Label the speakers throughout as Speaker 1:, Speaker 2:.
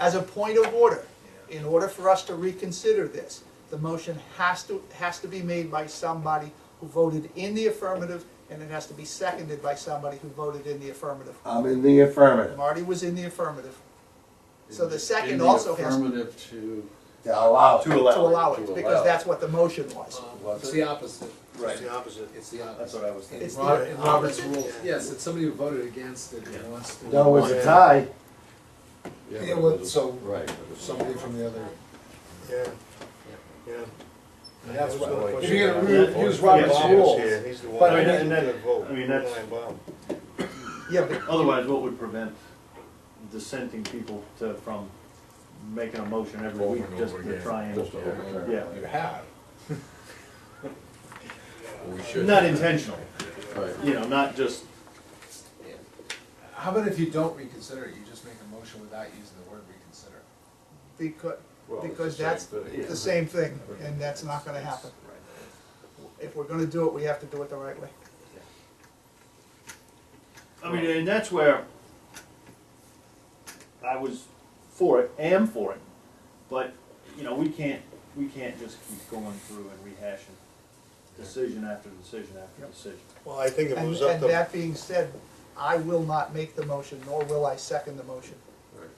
Speaker 1: As a point of order, in order for us to reconsider this, the motion has to, has to be made by somebody who voted in the affirmative, and it has to be seconded by somebody who voted in the affirmative.
Speaker 2: I'm in the affirmative.
Speaker 1: Marty was in the affirmative. So the second
Speaker 3: In the
Speaker 1: also has-
Speaker 3: Affirmative to.
Speaker 2: To allow.
Speaker 4: To
Speaker 1: to allow
Speaker 4: allow
Speaker 1: it,
Speaker 4: it.
Speaker 1: because that's what the motion
Speaker 5: Uh,
Speaker 1: was.
Speaker 5: It's the opposite.
Speaker 4: It's the opposite.
Speaker 5: It's the
Speaker 4: That's
Speaker 5: opposite.
Speaker 4: what I was thinking.
Speaker 1: It's the
Speaker 5: Robert- in Robert's
Speaker 1: opposite.
Speaker 5: rules, yes, it's somebody who voted against it and wants to.
Speaker 2: No, it's a tie.
Speaker 5: Yeah, well, so,
Speaker 3: Right.
Speaker 5: somebody from the other.
Speaker 6: Yeah, yeah.
Speaker 5: And that's
Speaker 6: That's what I
Speaker 5: what,
Speaker 6: was
Speaker 5: if you're gonna
Speaker 6: gonna
Speaker 5: re- use Robert's rules,
Speaker 6: Yeah, he's the
Speaker 5: But
Speaker 6: one.
Speaker 5: I mean,
Speaker 6: that's
Speaker 4: and
Speaker 6: gonna
Speaker 4: that-
Speaker 6: vote.
Speaker 4: I mean, that's-
Speaker 6: Ryan Baum.
Speaker 1: Yeah, but
Speaker 4: Otherwise, what would prevent dissenting people to, from making a motion every week just to try and, yeah.
Speaker 3: You have. We should.
Speaker 4: Not intentional,
Speaker 3: Right.
Speaker 4: you know, not just,
Speaker 5: how about if you don't reconsider it, you just make a motion without using the word reconsider?
Speaker 1: because,
Speaker 3: Well, it's
Speaker 1: because
Speaker 3: the
Speaker 1: that's
Speaker 3: same thing.
Speaker 1: the same thing, and that's not gonna happen. If we're gonna do it, we have to do it the right way.
Speaker 4: I mean, and that's where I was for it, am for it, but, you know, we can't, we can't just keep going through and rehashing decision after decision after
Speaker 1: Yep.
Speaker 4: decision.
Speaker 6: Well, I think it
Speaker 1: And,
Speaker 6: was up
Speaker 1: and
Speaker 6: to,
Speaker 1: that being said, I will not make the motion, nor will I second the motion.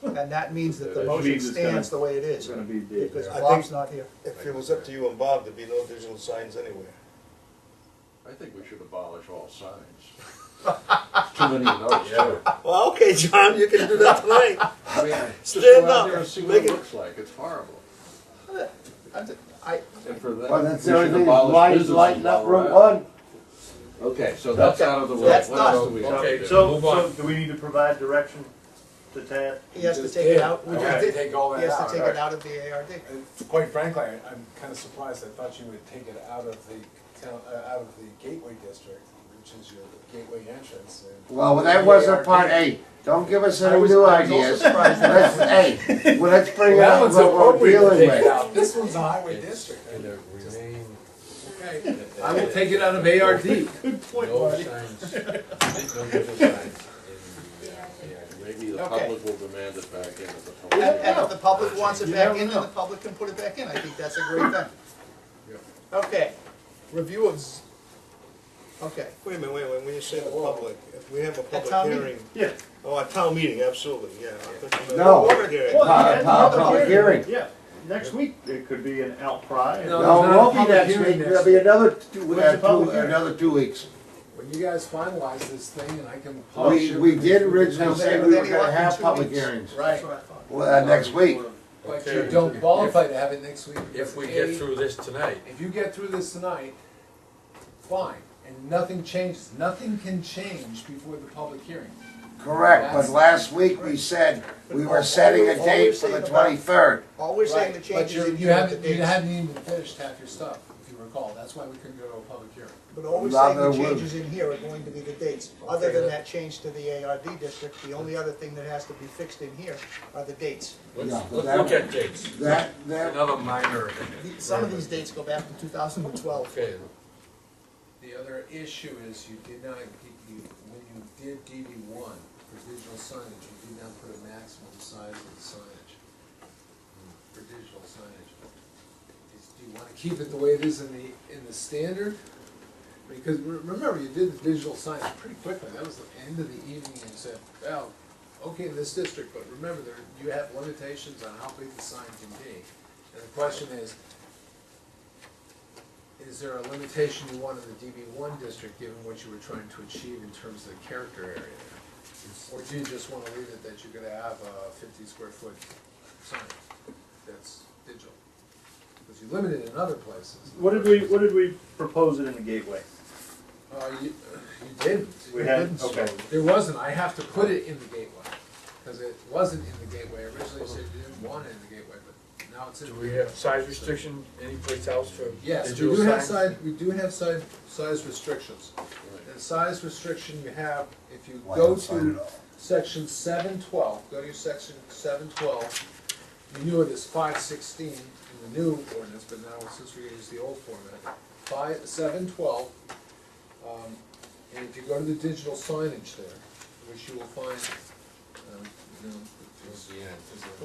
Speaker 1: And that means that the
Speaker 3: That
Speaker 1: motion
Speaker 4: means it's gonna-
Speaker 1: stands the way it
Speaker 4: It's
Speaker 1: is,
Speaker 4: gonna be big.
Speaker 1: because
Speaker 6: I
Speaker 1: Bob's
Speaker 6: think-
Speaker 1: not here.
Speaker 6: if it was up to you and Bob, there'd be no digital signs anywhere.
Speaker 3: I think we should abolish all signs. Too many of those, too.
Speaker 6: Well, okay, John, you can do that tonight.
Speaker 5: I mean,
Speaker 3: Just
Speaker 6: Stand
Speaker 3: go out
Speaker 6: up.
Speaker 3: there and see what
Speaker 6: Make
Speaker 3: it
Speaker 6: it-
Speaker 3: looks like, it's horrible.
Speaker 1: I,
Speaker 3: And for that,
Speaker 2: Well,
Speaker 3: we
Speaker 2: that's
Speaker 3: should
Speaker 2: the only thing,
Speaker 3: abolish
Speaker 2: lights
Speaker 3: businesses
Speaker 2: lighting up
Speaker 3: while
Speaker 2: Route
Speaker 3: we're at it.
Speaker 2: One.
Speaker 3: Okay, so that's out of the way.
Speaker 1: That's
Speaker 3: What else
Speaker 1: done.
Speaker 3: do we have to
Speaker 4: So,
Speaker 3: do?
Speaker 4: so, so do we need to provide direction to Tad?
Speaker 1: he has to
Speaker 5: Just
Speaker 1: take it
Speaker 5: did.
Speaker 1: out, we
Speaker 5: You
Speaker 1: just
Speaker 5: have
Speaker 4: Okay.
Speaker 5: to
Speaker 1: did,
Speaker 5: take all
Speaker 1: he
Speaker 5: that
Speaker 1: has to take
Speaker 5: out.
Speaker 1: it out of the ARD.
Speaker 5: And Quite frankly, I- I'm kinda surprised, I thought you would take it out of the town, uh, out of the gateway district, which is your gateway entrance and.
Speaker 2: Well, that wasn't part A. Don't give us
Speaker 5: I
Speaker 2: any
Speaker 5: was-
Speaker 2: new
Speaker 5: I was also
Speaker 2: ideas.
Speaker 5: surprised
Speaker 2: Let's, hey, well, let's bring
Speaker 5: That
Speaker 2: out
Speaker 5: one's
Speaker 2: what we're
Speaker 5: appropriate to
Speaker 2: dealing
Speaker 5: take it
Speaker 2: with.
Speaker 5: out, this one's a highway district.
Speaker 7: And there remain
Speaker 5: Okay, I will take it out of ARD.
Speaker 7: no signs, no visual signs in the, uh, yeah,
Speaker 3: Maybe the
Speaker 1: Okay.
Speaker 3: public will demand it back in at the
Speaker 1: And,
Speaker 3: public.
Speaker 1: and if the public wants it
Speaker 2: You
Speaker 1: back
Speaker 2: never
Speaker 1: in, then
Speaker 2: know.
Speaker 1: the public can put it back in, I think that's a great thing. Okay, review of, z- okay,
Speaker 6: Wait a minute, wait a minute, when you say the public, if we have a
Speaker 1: town
Speaker 6: public
Speaker 1: meeting.
Speaker 6: hearing.
Speaker 4: Yeah.
Speaker 6: Oh, a town meeting, absolutely, yeah. I think we-
Speaker 2: No.
Speaker 6: Public hearing.
Speaker 4: Well,
Speaker 2: Pow-
Speaker 4: yeah,
Speaker 2: pow-
Speaker 4: another
Speaker 2: public hearing.
Speaker 4: Yeah, next week, it could be an outcry.
Speaker 5: No.
Speaker 2: No, it
Speaker 5: not a
Speaker 2: won't be
Speaker 5: public
Speaker 2: next week,
Speaker 5: hearing next
Speaker 2: it'll be
Speaker 5: week.
Speaker 2: another two,
Speaker 4: When's the
Speaker 2: uh, two,
Speaker 4: public hearing?
Speaker 2: another two weeks.
Speaker 5: When you guys finalize this thing and I can. publish
Speaker 2: We,
Speaker 5: it-
Speaker 2: we did originally say we were
Speaker 1: Then you
Speaker 2: gonna
Speaker 1: want
Speaker 2: have
Speaker 1: two
Speaker 2: public
Speaker 1: weeks.
Speaker 2: hearings,
Speaker 5: Right,
Speaker 2: well, uh, next week.
Speaker 5: but
Speaker 7: Okay.
Speaker 5: you don't qualify to have it next week.
Speaker 7: If we get through this tonight,
Speaker 5: If you get through this tonight, fine, and nothing changes, nothing can change before the public hearing.
Speaker 2: Correct, but last week we said we were setting a date for the twenty-third.
Speaker 1: all we're saying the
Speaker 5: Right,
Speaker 1: changes
Speaker 5: But
Speaker 1: in
Speaker 5: you- you
Speaker 1: here are the
Speaker 5: haven't, you
Speaker 1: dates.
Speaker 5: haven't even finished half your stuff, if you recall, that's why we couldn't go to a public hearing.
Speaker 1: But all we're saying
Speaker 2: Rather
Speaker 1: the
Speaker 2: would.
Speaker 1: changes in here are going to be the dates, other
Speaker 5: Okay.
Speaker 1: than that change to the ARD district, the only other thing that has to be fixed in here are the dates.
Speaker 2: Yeah,
Speaker 7: let's,
Speaker 2: but
Speaker 7: let's
Speaker 2: that-
Speaker 7: look at dates,
Speaker 2: That, that,
Speaker 7: another minor.
Speaker 1: The- Some of these dates go back to two thousand and twelve.
Speaker 7: Okay,
Speaker 5: The other issue is you did not, you, when you did DD one for digital signage, you did not put a maximum size of the signage. For digital signage. Is- Do you wanna keep it the way it is in the, in the standard? Because re- remember, you did the digital signage pretty quickly, that was the end of the evening and said, well, okay, in this district, but remember, there, you have limitations on how big the sign can be. And the question is, is there a limitation you want in the DB one district, given what you were trying to achieve in terms of the character area? there? Or do you just wanna leave it that you're gonna have a fifty square foot sign that's digital? Because you limit it in other places.
Speaker 2: What
Speaker 4: What did we, what did we propose it in the gateway?
Speaker 5: Uh, you, you didn't.
Speaker 4: We had-
Speaker 5: Didn't, so
Speaker 4: okay.
Speaker 5: There wasn't, I have to put it in the gateway, cause it wasn't in the gateway, originally you said you didn't want it in the gateway, but now it's in.
Speaker 7: do
Speaker 5: the
Speaker 7: we
Speaker 5: gateway.
Speaker 7: have size restriction anyplace else for
Speaker 5: Yes, we
Speaker 7: digital
Speaker 5: do have
Speaker 7: signs?
Speaker 5: size, we do have size, size restrictions. And size restriction you have, if you
Speaker 2: Why
Speaker 5: go
Speaker 2: not sign it
Speaker 5: to
Speaker 2: off?
Speaker 5: section seven twelve, go to your section seven twelve, you knew it as five sixteen in the new ordinance, but now since we use the old format, five, seven twelve. um, And if you go to the digital signage there, which you will find, um, you know, This is the end.